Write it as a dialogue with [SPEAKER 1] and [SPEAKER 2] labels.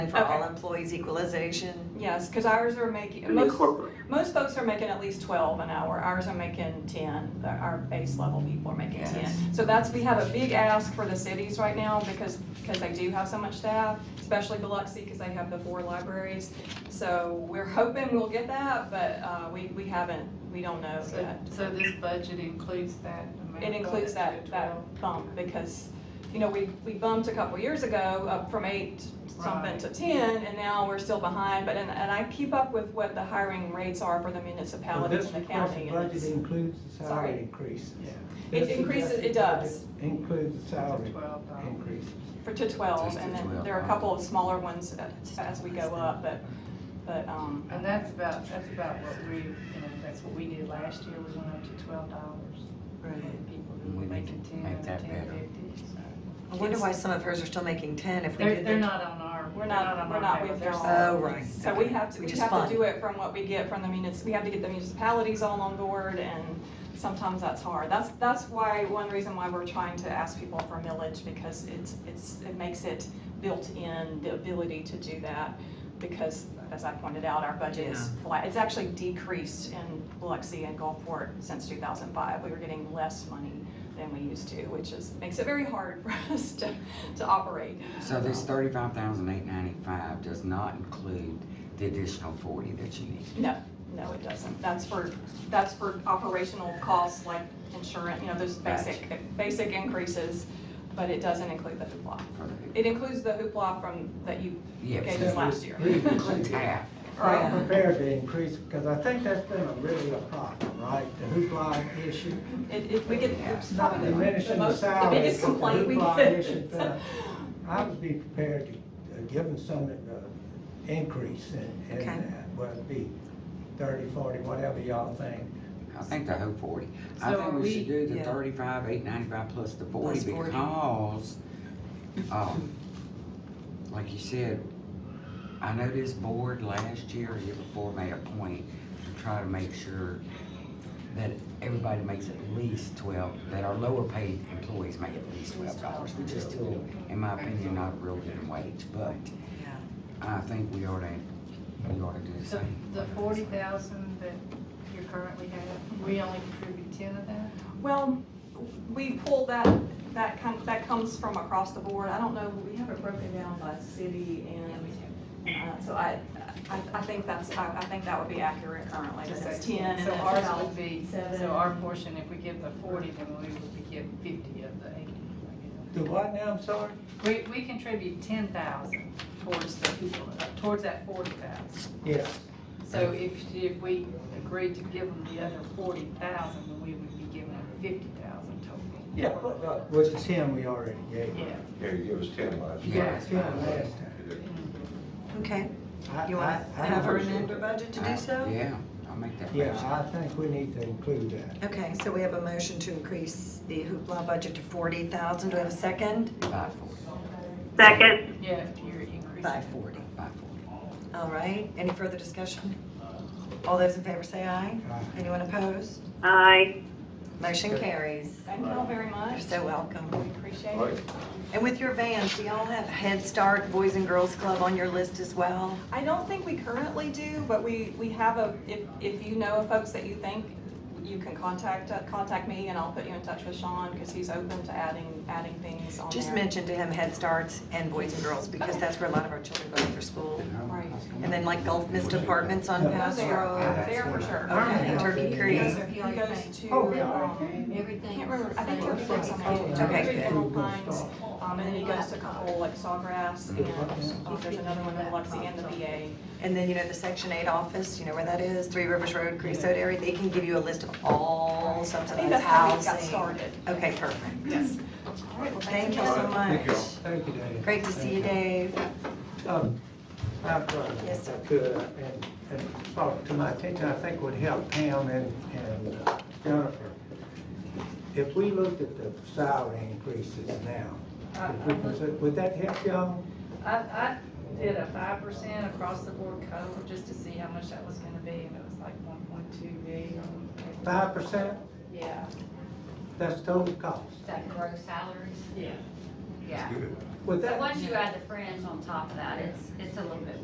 [SPEAKER 1] for all
[SPEAKER 2] Okay.
[SPEAKER 1] employees equalization?
[SPEAKER 2] Yes, because ours are making,
[SPEAKER 3] And then
[SPEAKER 2] most,
[SPEAKER 3] corporate,
[SPEAKER 2] most folks are making at least twelve an hour, ours are making ten, The- our base level people are making ten.
[SPEAKER 1] Yes.
[SPEAKER 2] So that's, we have a big ask for the cities right now because, because they do have so much staff, especially Biloxi, because they have the four libraries. So we're hoping we'll get that, but, uh, we, we haven't, we don't know
[SPEAKER 4] So,
[SPEAKER 2] yet.
[SPEAKER 4] so this budget includes that amount?
[SPEAKER 2] It includes that, that bump because, you know, we, we bumped a couple years ago up from eight something
[SPEAKER 4] Right.
[SPEAKER 2] to ten and now we're still behind. But, and, and I keep up with what the hiring rates are for the
[SPEAKER 5] Well,
[SPEAKER 2] municipalities
[SPEAKER 5] this
[SPEAKER 2] and the
[SPEAKER 5] requested
[SPEAKER 2] county. and
[SPEAKER 5] budget
[SPEAKER 2] it's-
[SPEAKER 5] includes the
[SPEAKER 2] Sorry.
[SPEAKER 5] salary increases.
[SPEAKER 2] It
[SPEAKER 5] This
[SPEAKER 2] increases, it
[SPEAKER 5] suggested
[SPEAKER 2] does,
[SPEAKER 5] budget Includes the salary
[SPEAKER 4] Twelve dollars.
[SPEAKER 5] increase.
[SPEAKER 2] for to twelve and then there are a couple of smaller ones uh, as we go up, but, but, um,
[SPEAKER 4] And that's about, that's about what we, you know, that's what we did last year, we went up to twelve dollars. And people who were
[SPEAKER 6] We need
[SPEAKER 4] making
[SPEAKER 6] to
[SPEAKER 4] ten,
[SPEAKER 6] make that better.
[SPEAKER 4] ten fifty.
[SPEAKER 1] I wonder why some of hers are still making ten if we
[SPEAKER 4] They're,
[SPEAKER 1] did
[SPEAKER 4] they're
[SPEAKER 1] that.
[SPEAKER 4] not on our,
[SPEAKER 2] We're
[SPEAKER 4] we're
[SPEAKER 2] not-
[SPEAKER 4] not on
[SPEAKER 2] we're
[SPEAKER 4] our
[SPEAKER 2] not
[SPEAKER 4] payroll,
[SPEAKER 2] with
[SPEAKER 4] they're
[SPEAKER 2] y'all.
[SPEAKER 1] Oh, right.
[SPEAKER 2] So we have to,
[SPEAKER 1] We
[SPEAKER 2] we
[SPEAKER 1] just
[SPEAKER 2] have
[SPEAKER 1] fund.
[SPEAKER 2] to do it from what we get from the munis, we have to get the municipalities all on board, and sometimes that's hard. That's, that's why, one reason why we're trying to ask people for millage, because it's, it's, it makes it built in, the ability to do that, because, as I pointed out, our budget is flat. It's actually decreased in Biloxi and Gulfport since two thousand five. We were getting less money than we used to, which is, makes it very hard for us to, to operate.
[SPEAKER 6] So this thirty-five thousand eight ninety-five does not include the additional forty that you need.
[SPEAKER 2] No, no, it doesn't. That's for, that's for operational costs like insurance, you know, those basic, basic increases, but it doesn't include the hoopla.
[SPEAKER 6] for the-
[SPEAKER 2] It includes the hoopla from, that you
[SPEAKER 6] Yes,
[SPEAKER 2] gave us last year.
[SPEAKER 5] Really?
[SPEAKER 6] includes half.
[SPEAKER 5] I'm prepared to increase, because I think that's been a really a problem, right? The hoopla issue.
[SPEAKER 2] It, it, we get, it's
[SPEAKER 5] It's not
[SPEAKER 2] probably the
[SPEAKER 5] diminishing the
[SPEAKER 2] most, the
[SPEAKER 5] salary.
[SPEAKER 2] biggest complaint we
[SPEAKER 5] hoopla issue,
[SPEAKER 2] get.
[SPEAKER 5] but I would be prepared to uh, give them some uh, increase in, in
[SPEAKER 1] Okay.
[SPEAKER 5] that, whether it be thirty, forty, whatever y'all think.
[SPEAKER 6] I think the whole forty. I
[SPEAKER 4] So
[SPEAKER 6] think
[SPEAKER 4] are
[SPEAKER 6] we should
[SPEAKER 4] we-
[SPEAKER 6] do the
[SPEAKER 1] yeah.
[SPEAKER 6] thirty-five, eight ninety-five plus the forty
[SPEAKER 1] Plus 40.
[SPEAKER 6] because, um, like you said, I know this board last year, or year before, made a point to try to make sure that everybody makes at least twelve, that our lower paid employees make at least twelve dollars, which is still, in my opinion, not a real good wage, but
[SPEAKER 1] Yeah.
[SPEAKER 6] I think we ought to, we ought to do the
[SPEAKER 4] So
[SPEAKER 6] same.
[SPEAKER 4] the forty thousand that you currently have, we only contribute ten of that?
[SPEAKER 2] Well, we pull that, that kind, that comes from across the board. I don't know, we have it broken down by city and Uh, So I, I, I think that's, I, I think that would be accurate currently, because it's ten and
[SPEAKER 4] So
[SPEAKER 2] it's
[SPEAKER 4] ours
[SPEAKER 2] about
[SPEAKER 4] would be,
[SPEAKER 2] seven.
[SPEAKER 4] so our portion, if we give the forty, then we would be give fifty of the eighty.
[SPEAKER 5] Do what now, I'm sorry?
[SPEAKER 4] We, we contribute ten thousand towards the people, uh, towards that forty thousand.
[SPEAKER 5] Yeah,
[SPEAKER 4] So if, if we agreed to give them the other forty thousand, then we would be giving them fifty thousand total.
[SPEAKER 5] yeah, but, uh, which is ten we already gave.
[SPEAKER 4] Yeah.
[SPEAKER 7] Yeah, you gave us ten last
[SPEAKER 6] Yeah.
[SPEAKER 7] year.
[SPEAKER 5] Yeah, ten last
[SPEAKER 1] Okay,
[SPEAKER 5] time.
[SPEAKER 1] you wanna
[SPEAKER 5] I- I- I
[SPEAKER 1] have her
[SPEAKER 5] appreciate
[SPEAKER 1] amend her
[SPEAKER 5] it.
[SPEAKER 1] budget to do so?
[SPEAKER 6] Yeah, I'll make that motion.
[SPEAKER 5] Yeah, I think we need to include that.
[SPEAKER 1] Okay, so we have a motion to increase the hoopla budget to forty thousand. Do we have a second?
[SPEAKER 6] Five forty,
[SPEAKER 8] Second,
[SPEAKER 4] Yeah, if you're increasing.
[SPEAKER 1] By forty.
[SPEAKER 6] five forty.
[SPEAKER 1] All right, any further discussion? All those in favor say aye.
[SPEAKER 5] Aye.
[SPEAKER 1] Anyone opposed?
[SPEAKER 8] aye.
[SPEAKER 1] Motion carries.
[SPEAKER 2] Thank y'all very much.
[SPEAKER 1] You're so welcome.
[SPEAKER 2] We appreciate
[SPEAKER 7] Right.
[SPEAKER 2] it.
[SPEAKER 1] And with your vans, do y'all have Head Start Boys and Girls Club on your list as well?
[SPEAKER 2] I don't think we currently do, but we, we have a, if, if you know of folks that you think, you can contact, uh, contact me and I'll put you in touch with Sean, because he's open to adding, adding things on there.
[SPEAKER 1] Just mention to him Head Starts and Boys and Girls because that's where a lot of our children go after school.
[SPEAKER 2] Right.
[SPEAKER 1] And then like Gulf Mist Apartments on
[SPEAKER 5] Yeah.
[SPEAKER 1] Pass
[SPEAKER 2] Those are,
[SPEAKER 1] Road.
[SPEAKER 2] there for sure.
[SPEAKER 1] Okay, Turkey Creek.
[SPEAKER 2] He goes to,
[SPEAKER 5] Oh, yeah.
[SPEAKER 2] um, I
[SPEAKER 9] Everything.
[SPEAKER 2] can't remember, I think Turkey Creek's on
[SPEAKER 5] Oh,
[SPEAKER 2] there.
[SPEAKER 1] okay,
[SPEAKER 2] Turkey Creek,
[SPEAKER 1] good.
[SPEAKER 2] Little Pines, um, and then he goes to a couple like Sawgrass and, um, there's another one in Biloxi and the VA.
[SPEAKER 1] And then, you know, the Section 8 office, you know where that is? Three Rivers Road, Creosote area. They can give you a list of all
[SPEAKER 2] I think
[SPEAKER 1] subsidized
[SPEAKER 2] that's how we got
[SPEAKER 1] housing.
[SPEAKER 2] started.
[SPEAKER 1] Okay, perfect. Yes.
[SPEAKER 2] All right, well,
[SPEAKER 1] Thank
[SPEAKER 2] thank
[SPEAKER 1] you so
[SPEAKER 7] Thank you.
[SPEAKER 1] much.
[SPEAKER 5] Thank you, Dave.
[SPEAKER 1] Great to see you, Dave.
[SPEAKER 5] Um, I've, uh,
[SPEAKER 1] Yes, sir.
[SPEAKER 5] could, and, and brought to my attention, I think would help Pam and, and uh, Jennifer. If we looked at the salary increases now, if we consider- would that help y'all?
[SPEAKER 4] I, I did a five percent across the board code just to see how much that was gonna be, and it was like one point two million.
[SPEAKER 5] Five percent,
[SPEAKER 4] Yeah,
[SPEAKER 5] that's total cost.
[SPEAKER 9] That gross salaries.
[SPEAKER 4] yeah.
[SPEAKER 3] yeah.
[SPEAKER 6] It's good.
[SPEAKER 5] Would
[SPEAKER 3] So
[SPEAKER 5] that,
[SPEAKER 3] once you add the fringe on top of that, it's, it's a